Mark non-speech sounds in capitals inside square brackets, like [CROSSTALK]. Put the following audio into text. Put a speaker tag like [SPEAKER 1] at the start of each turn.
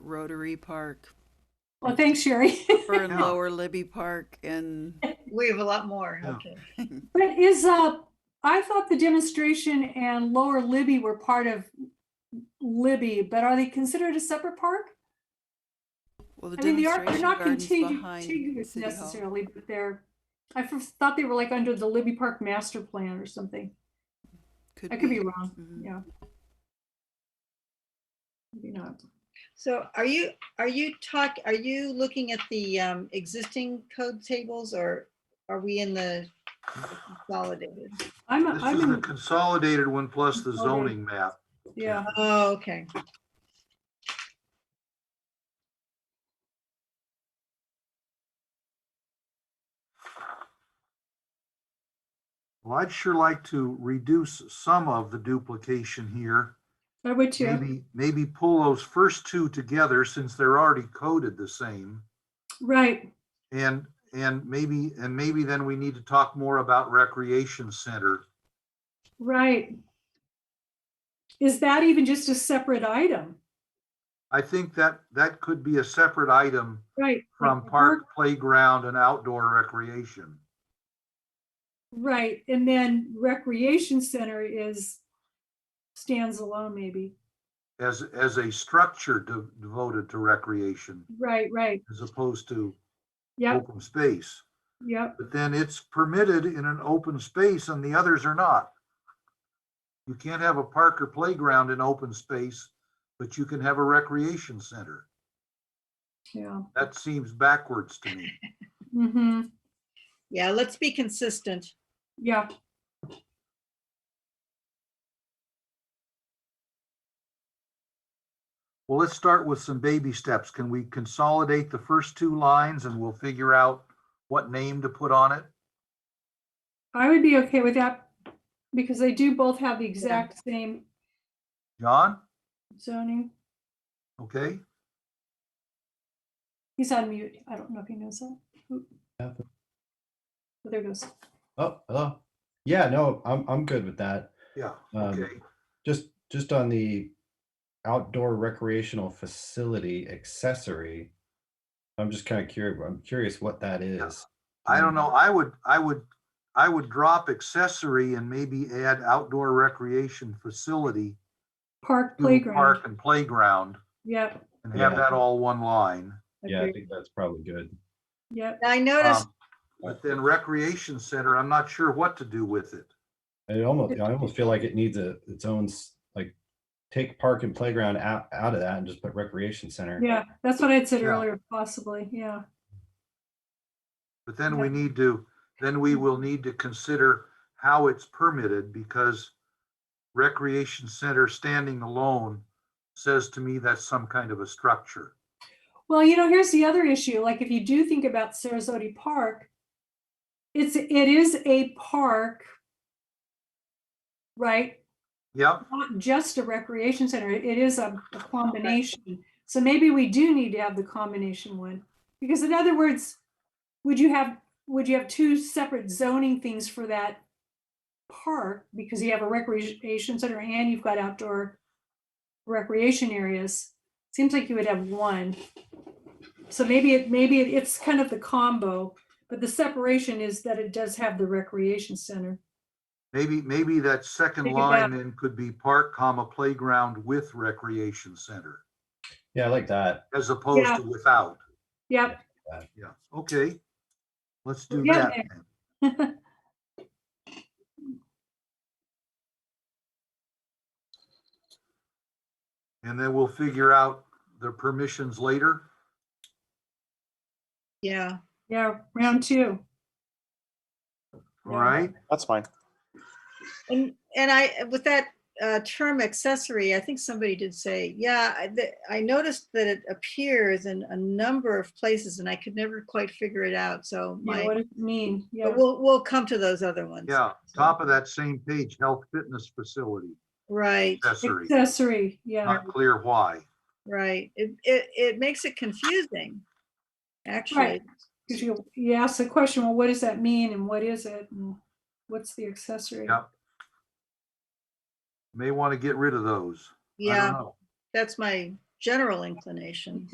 [SPEAKER 1] Rotary
[SPEAKER 2] [LAUGHS]
[SPEAKER 1] Park,
[SPEAKER 2] Well, thanks, Sherry. [LAUGHS]
[SPEAKER 1] for
[SPEAKER 3] Yeah.
[SPEAKER 1] Lower Libby Park, and [LAUGHS]
[SPEAKER 3] We have a lot more.
[SPEAKER 4] Yeah.
[SPEAKER 3] Okay.
[SPEAKER 2] But is, uh, I thought the demonstration and Lower Libby were part of Libby, but are they considered a separate park?
[SPEAKER 1] well, the
[SPEAKER 2] I mean, they are, they're
[SPEAKER 1] demonstration
[SPEAKER 2] not
[SPEAKER 1] gardens
[SPEAKER 2] contigu-
[SPEAKER 1] behind
[SPEAKER 2] contiguous
[SPEAKER 1] City Hall.
[SPEAKER 2] necessarily, but they're, I first thought they were like under the Libby Park Master Plan or something. I could be wrong,
[SPEAKER 1] Mhm.
[SPEAKER 2] yeah. Maybe not.
[SPEAKER 3] So are you, are you talk, are you looking at the um, existing code tables or are we in the consolidated?
[SPEAKER 2] I'm,
[SPEAKER 4] This is
[SPEAKER 2] I'm,
[SPEAKER 4] the
[SPEAKER 2] in-
[SPEAKER 4] consolidated one plus the
[SPEAKER 2] Okay.
[SPEAKER 4] zoning map.
[SPEAKER 2] yeah,
[SPEAKER 3] Oh, okay.
[SPEAKER 4] Well, I'd sure like to reduce some of the duplication here.
[SPEAKER 2] I would too.
[SPEAKER 4] Maybe, maybe pull those first two together since they're already coded the same.
[SPEAKER 2] Right,
[SPEAKER 4] And, and maybe, and maybe then we need to talk more about recreation center.
[SPEAKER 2] right. Is that even just a separate item?
[SPEAKER 4] I think that, that could be a separate item
[SPEAKER 2] Right.
[SPEAKER 4] from
[SPEAKER 2] like the
[SPEAKER 4] park, playground and outdoor recreation.
[SPEAKER 2] Right, and then recreation center is, stands alone maybe.
[SPEAKER 4] As, as a structure de- devoted to recreation
[SPEAKER 2] Right, right,
[SPEAKER 4] as opposed to
[SPEAKER 2] yep,
[SPEAKER 4] open space.
[SPEAKER 2] yep,
[SPEAKER 4] But then it's permitted in an open space and the others are not. You can't have a park or playground in open space, but you can have a recreation center.
[SPEAKER 2] yeah.
[SPEAKER 4] That seems backwards to me.
[SPEAKER 2] Mm-hmm,
[SPEAKER 3] Yeah, let's be consistent.
[SPEAKER 2] yeah,
[SPEAKER 4] Well, let's start with some baby steps. Can we consolidate the first two lines and we'll figure out what name to put on it?
[SPEAKER 2] I would be okay with that because they do both have the exact same
[SPEAKER 4] John?
[SPEAKER 2] zoning.
[SPEAKER 4] Okay,
[SPEAKER 2] He's on mute. I don't know if he knows that. Oop.
[SPEAKER 5] Yeah.
[SPEAKER 2] But There goes.
[SPEAKER 5] Oh, hello. Yeah, no, I'm I'm good with that.
[SPEAKER 4] yeah,
[SPEAKER 5] Um,
[SPEAKER 4] okay.
[SPEAKER 5] Just just on the outdoor recreational facility accessory. I'm just kind of curious. I'm curious what that is. Um,
[SPEAKER 4] I don't know. I would, I would, I would drop accessory and maybe add outdoor recreation facility.
[SPEAKER 2] Park
[SPEAKER 4] to Park
[SPEAKER 2] playground.
[SPEAKER 4] and playground.
[SPEAKER 2] Yep,
[SPEAKER 4] and have
[SPEAKER 5] Yeah.
[SPEAKER 4] that all one line.
[SPEAKER 5] Yeah, I
[SPEAKER 2] agreed.
[SPEAKER 5] think that's probably good.
[SPEAKER 2] yep.
[SPEAKER 3] I noticed,
[SPEAKER 4] Um, But then recreation center, I'm not sure what to do with it.
[SPEAKER 5] I almost I almost feel like it needs a its own s- like take park and playground out out of that and just put recreation center.
[SPEAKER 2] Yeah, that's what I'd said
[SPEAKER 4] Yeah.
[SPEAKER 2] earlier, possibly. Yeah,
[SPEAKER 4] But then we need to, then we will need to consider how it's permitted because recreation center standing alone says to me that's some kind of a structure.
[SPEAKER 2] Well, you know, here's the other issue. Like if you do think about Sarasota Park, it's, it is a park, right?
[SPEAKER 4] Yep,
[SPEAKER 2] Not just a recreation center. It is a a combination. So maybe we do need to have the combination one. Because in other words, would you have, would you have two separate zoning things for that park? Because you have a recreation center and you've got outdoor recreation areas. Seems like you would have one. So maybe it, maybe it- it's kind of the combo, but the separation is that it does have the recreation center.
[SPEAKER 4] maybe, maybe that second
[SPEAKER 2] Think about-
[SPEAKER 4] line then could be park comma playground with recreation center
[SPEAKER 5] Yeah, I like that.
[SPEAKER 4] as opposed
[SPEAKER 2] Yeah.
[SPEAKER 4] to without.
[SPEAKER 2] Yep, [LAUGHS]
[SPEAKER 4] Yeah, okay. Let's do
[SPEAKER 2] We're getting there.
[SPEAKER 4] that. then. And then we'll figure out the permissions later.
[SPEAKER 3] yeah,
[SPEAKER 2] yeah, round two.
[SPEAKER 4] All
[SPEAKER 2] Yeah.
[SPEAKER 4] right,
[SPEAKER 6] That's fine.
[SPEAKER 3] and, and I, with that uh, term accessory, I think somebody did say, yeah, I- the- I noticed that it appears in a number of places and I could never quite figure it out, so
[SPEAKER 2] Yeah,
[SPEAKER 3] my,
[SPEAKER 2] what does it mean? Yeah,
[SPEAKER 3] but we'll, we'll come to those other ones.
[SPEAKER 4] yeah, top of that same page, health fitness facility
[SPEAKER 3] Right,
[SPEAKER 4] accessory,
[SPEAKER 2] accessory, yeah,
[SPEAKER 4] not clear why.
[SPEAKER 3] right. It, it, it makes it confusing, actually.
[SPEAKER 2] 'cause you, you ask the question, well, what does that mean and what is it? and What's the accessory?
[SPEAKER 4] Yeah. May want to get rid of those. I don't
[SPEAKER 3] Yeah,
[SPEAKER 4] know.
[SPEAKER 3] that's my general inclination.